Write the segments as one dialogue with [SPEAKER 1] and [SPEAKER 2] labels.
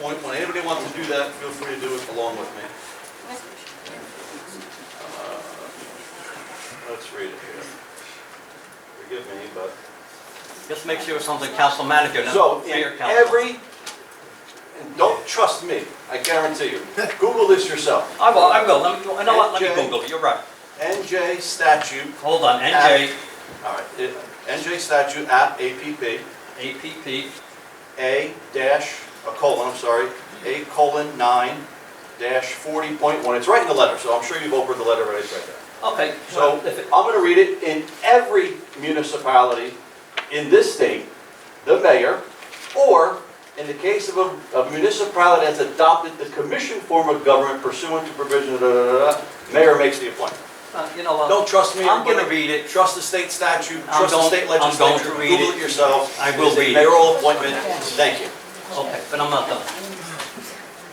[SPEAKER 1] point, when anybody wants to do that, feel free to do it along with me. Uh, Let's read it here. Forgive me, but.
[SPEAKER 2] Just make sure it's something council manager,
[SPEAKER 1] So,
[SPEAKER 2] not
[SPEAKER 1] in
[SPEAKER 2] mayor council.
[SPEAKER 1] every, and don't trust me, I guarantee you. Google this yourself.
[SPEAKER 2] I will, I will, let me, you know what, let me
[SPEAKER 1] NJ.
[SPEAKER 2] Google it, you're right.
[SPEAKER 1] NJ statute,
[SPEAKER 2] Hold on, NJ,
[SPEAKER 1] all right, it- NJ statute app, APP,
[SPEAKER 2] APP,
[SPEAKER 1] A dash, a colon, I'm sorry, A colon nine dash forty point one. It's right in the letter, so I'm sure you've opened the letter already, it's right there.
[SPEAKER 2] okay.
[SPEAKER 1] So,
[SPEAKER 2] if it-
[SPEAKER 1] I'm gonna read it, in every municipality in this state, the mayor, or in the case of a a municipality that's adopted the commission form of government pursuant to provision, da, da, da, da, mayor makes the appointment.
[SPEAKER 2] uh, You know what,
[SPEAKER 1] Don't trust me,
[SPEAKER 2] I'm gonna
[SPEAKER 1] everybody.
[SPEAKER 2] read it,
[SPEAKER 1] Trust the state statute,
[SPEAKER 2] I'm
[SPEAKER 1] trust the
[SPEAKER 2] going-
[SPEAKER 1] state
[SPEAKER 2] I'm going
[SPEAKER 1] legislature,
[SPEAKER 2] to read
[SPEAKER 1] Google
[SPEAKER 2] it.
[SPEAKER 1] it yourself.
[SPEAKER 2] I will
[SPEAKER 1] It's a
[SPEAKER 2] read it.
[SPEAKER 1] Mayoral appointment, thank you.
[SPEAKER 2] okay, but I'm not done.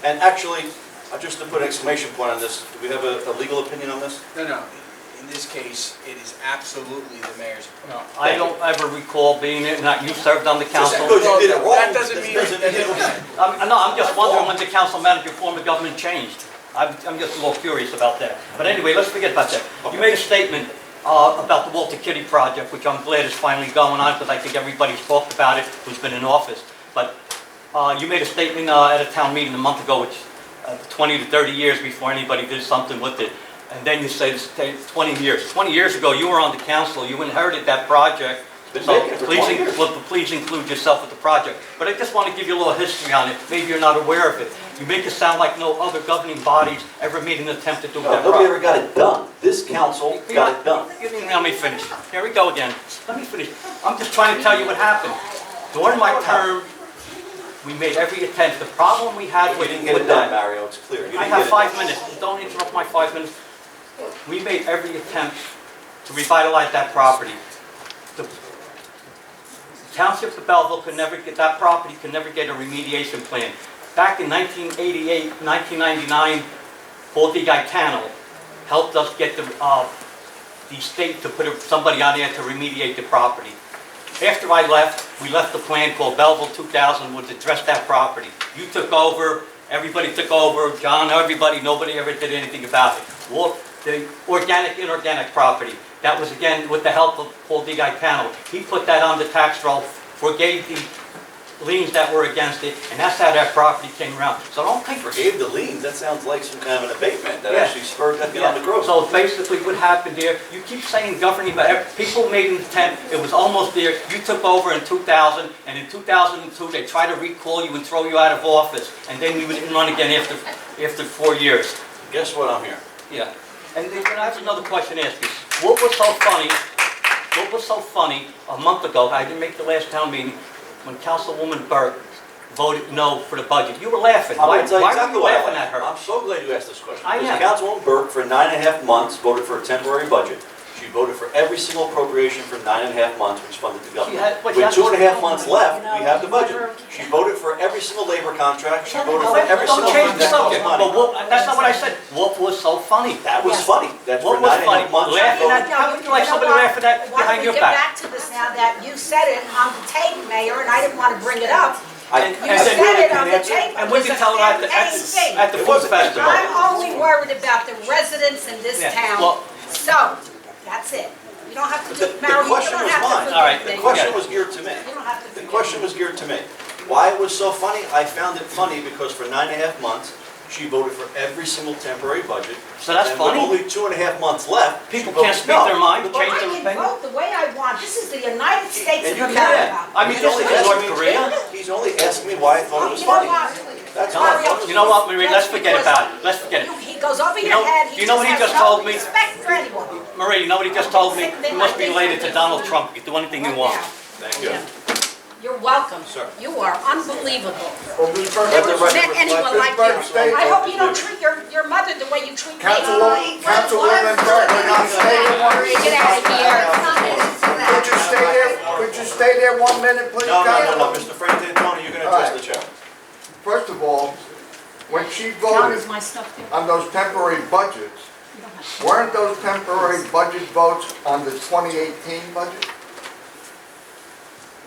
[SPEAKER 1] And actually, uh, just to put an exclamation point on this, do we have a a legal opinion on this?
[SPEAKER 3] No, no, in this case, it is absolutely the mayor's.
[SPEAKER 2] No, I don't ever recall being in, not, you served on the
[SPEAKER 1] Just
[SPEAKER 2] council.
[SPEAKER 1] because you did it wrong.
[SPEAKER 3] That doesn't mean-
[SPEAKER 2] I'm, no, I'm just wondering when the council manager form of government changed. I'm, I'm just a little curious about that. But anyway, let's forget about that. You made a statement, uh, about the Walter Kitty project, which I'm glad is finally going on, because I think everybody's talked about it who's been in office. But, uh, you made a statement, uh, at a town meeting a month ago, which, uh, twenty to thirty years before anybody did something with it. And then you say it's ta- twenty years. Twenty years ago, you were on the council, you inherited that project.
[SPEAKER 1] Been
[SPEAKER 2] So
[SPEAKER 1] making it for
[SPEAKER 2] please,
[SPEAKER 1] 20 years.
[SPEAKER 2] in- well, please include yourself with the project. But I just want to give you a little history on it, maybe you're not aware of it. You make it sound like no other governing bodies ever made an attempt to do
[SPEAKER 1] No,
[SPEAKER 2] that
[SPEAKER 1] Nobody
[SPEAKER 2] project.
[SPEAKER 1] ever got it done. This council got it done.
[SPEAKER 2] You didn't let me finish. Here we go again. Let me finish. I'm just trying to tell you what happened. During my term, we made every attempt. The problem we had
[SPEAKER 1] You
[SPEAKER 2] with
[SPEAKER 1] didn't get it
[SPEAKER 2] with
[SPEAKER 1] done,
[SPEAKER 2] that...
[SPEAKER 1] Mario, it's clear. You didn't get
[SPEAKER 2] I have
[SPEAKER 1] it
[SPEAKER 2] five
[SPEAKER 1] done.
[SPEAKER 2] minutes. Don't interrupt my five minutes. We made every attempt to revitalize that property. The Township of Belleville could never get, that property could never get a remediation plan. Back in 1988, 1999, Paul Di Gaetano helped us get the, uh, the state to put somebody on there to remediate the property. After I left, we left the plan called Belleville 2000, which addressed that property. You took over, everybody took over, John, everybody, nobody ever did anything about it. Well, the organic, inorganic property, that was again with the help of Paul D. Gaetano. He put that on the tax roll, forgave the liens that were against it, and that's how that property came around. So don't think
[SPEAKER 1] Forgave the liens, that sounds like some kind of an abatement that
[SPEAKER 2] Yeah.
[SPEAKER 1] actually spurred economic growth.
[SPEAKER 2] So basically what happened there, you keep saying governing, but ev- people made an attempt, it was almost there, you took over in 2000, and in 2002, they tried to recall you and throw you out of office, and then you didn't run again after, after four years.
[SPEAKER 1] Guess what, I'm here.
[SPEAKER 2] Yeah. And then I have another question to ask you. What was so funny, what was so funny a month ago, I didn't make the last town meeting, when Councilwoman Burke voted no for the budget? You were laughing.
[SPEAKER 1] I'm
[SPEAKER 2] Why
[SPEAKER 1] gonna tell you
[SPEAKER 2] why were
[SPEAKER 1] exactly
[SPEAKER 2] you
[SPEAKER 1] why I
[SPEAKER 2] laughing at
[SPEAKER 1] laughed.
[SPEAKER 2] her?
[SPEAKER 1] I'm so glad you asked this question.
[SPEAKER 2] I
[SPEAKER 1] Because
[SPEAKER 2] am.
[SPEAKER 1] Councilwoman Burke, for nine and a half months, voted for a temporary budget. She voted for every single appropriation for nine and a half months, which funded the government.
[SPEAKER 2] had- what, she
[SPEAKER 1] With
[SPEAKER 2] had-
[SPEAKER 1] two and a half months left, we have the budget. She voted for every single labor contract, she voted for every single
[SPEAKER 2] Don't
[SPEAKER 1] thing
[SPEAKER 2] change the
[SPEAKER 1] that costs
[SPEAKER 2] subject,
[SPEAKER 1] money.
[SPEAKER 2] but what, that's not what I said. What was so funny?
[SPEAKER 1] That was funny. That's for
[SPEAKER 2] What was
[SPEAKER 1] nine and a half
[SPEAKER 2] funny?
[SPEAKER 1] months. she
[SPEAKER 2] Laughing
[SPEAKER 1] voted
[SPEAKER 2] at- How would you like somebody to laugh at that behind your
[SPEAKER 4] Why
[SPEAKER 2] back?
[SPEAKER 4] don't we get back to this now that you said it on the tape, Mayor, and I didn't want to bring it up.
[SPEAKER 1] I-
[SPEAKER 2] And-
[SPEAKER 4] You
[SPEAKER 2] and then-
[SPEAKER 4] said it on the tape.
[SPEAKER 2] And we can tell it at the, at the- at the
[SPEAKER 1] It
[SPEAKER 2] food
[SPEAKER 1] wasn't that
[SPEAKER 2] festival.
[SPEAKER 4] I'm only worried about the residents in this
[SPEAKER 2] Yeah,
[SPEAKER 4] town.
[SPEAKER 2] well-
[SPEAKER 4] So, that's it. You don't have to
[SPEAKER 1] The-
[SPEAKER 4] do,
[SPEAKER 1] the
[SPEAKER 4] Mario, you
[SPEAKER 1] question
[SPEAKER 4] don't
[SPEAKER 1] was
[SPEAKER 4] have
[SPEAKER 1] mine.
[SPEAKER 4] to.
[SPEAKER 2] All right,
[SPEAKER 4] forgive
[SPEAKER 2] the
[SPEAKER 4] me.
[SPEAKER 1] The question
[SPEAKER 2] Yeah.
[SPEAKER 1] was geared to me.
[SPEAKER 4] You don't have to.
[SPEAKER 1] The
[SPEAKER 4] forgive
[SPEAKER 1] question
[SPEAKER 4] me.
[SPEAKER 1] was geared to me. Why it was so funny? I found it funny because for nine and a half months, she voted for every single temporary budget.
[SPEAKER 2] So that's
[SPEAKER 1] And with
[SPEAKER 2] funny.
[SPEAKER 1] only two and a half months left. she
[SPEAKER 2] People
[SPEAKER 1] voted
[SPEAKER 2] can't speak
[SPEAKER 1] no.
[SPEAKER 2] their mind,
[SPEAKER 4] Well,
[SPEAKER 2] change their
[SPEAKER 4] I can
[SPEAKER 2] opinion.
[SPEAKER 4] vote the way I want. This is the United
[SPEAKER 1] And
[SPEAKER 4] States of
[SPEAKER 1] you
[SPEAKER 4] America.
[SPEAKER 1] can't.
[SPEAKER 2] I mean,
[SPEAKER 1] He's
[SPEAKER 2] this
[SPEAKER 1] only
[SPEAKER 2] is in North
[SPEAKER 1] asking me-
[SPEAKER 2] Korea.
[SPEAKER 1] He's only asking me why I thought it was
[SPEAKER 4] You know
[SPEAKER 1] funny.
[SPEAKER 4] what?
[SPEAKER 1] That's
[SPEAKER 4] Mario,
[SPEAKER 1] all.
[SPEAKER 2] You know what, Marie, let's forget about it, let's forget
[SPEAKER 4] You-
[SPEAKER 2] it.
[SPEAKER 4] He goes over
[SPEAKER 2] You
[SPEAKER 4] your
[SPEAKER 2] know-
[SPEAKER 4] head.
[SPEAKER 2] you know what he
[SPEAKER 4] has
[SPEAKER 2] just
[SPEAKER 4] no
[SPEAKER 2] told me?
[SPEAKER 4] Respect for anyone.
[SPEAKER 2] Marie, you know what he just told me? You must be related to Donald Trump, you can do anything you want.
[SPEAKER 1] Thank you.
[SPEAKER 4] You're welcome.
[SPEAKER 1] Sir.
[SPEAKER 4] You are unbelievable.
[SPEAKER 1] Let the record
[SPEAKER 4] Met anyone like
[SPEAKER 1] reflect-
[SPEAKER 4] you. I hope you don't treat your, your mother the way you treat me.
[SPEAKER 5] Councilwoman, Councilwoman Burke, could you stay there one?
[SPEAKER 4] Get out of here.
[SPEAKER 5] Could you stay there, could you stay there one minute, please,
[SPEAKER 1] No, no, no, no,
[SPEAKER 5] Councilwoman?
[SPEAKER 1] Mr. Frank Antoni, you're gonna
[SPEAKER 5] All
[SPEAKER 1] address
[SPEAKER 5] right.
[SPEAKER 1] the chair.
[SPEAKER 5] First of all, when she
[SPEAKER 6] John,
[SPEAKER 5] voted
[SPEAKER 6] is my stuff there?
[SPEAKER 5] on those temporary budgets, weren't those temporary budget votes on the 2018 budget?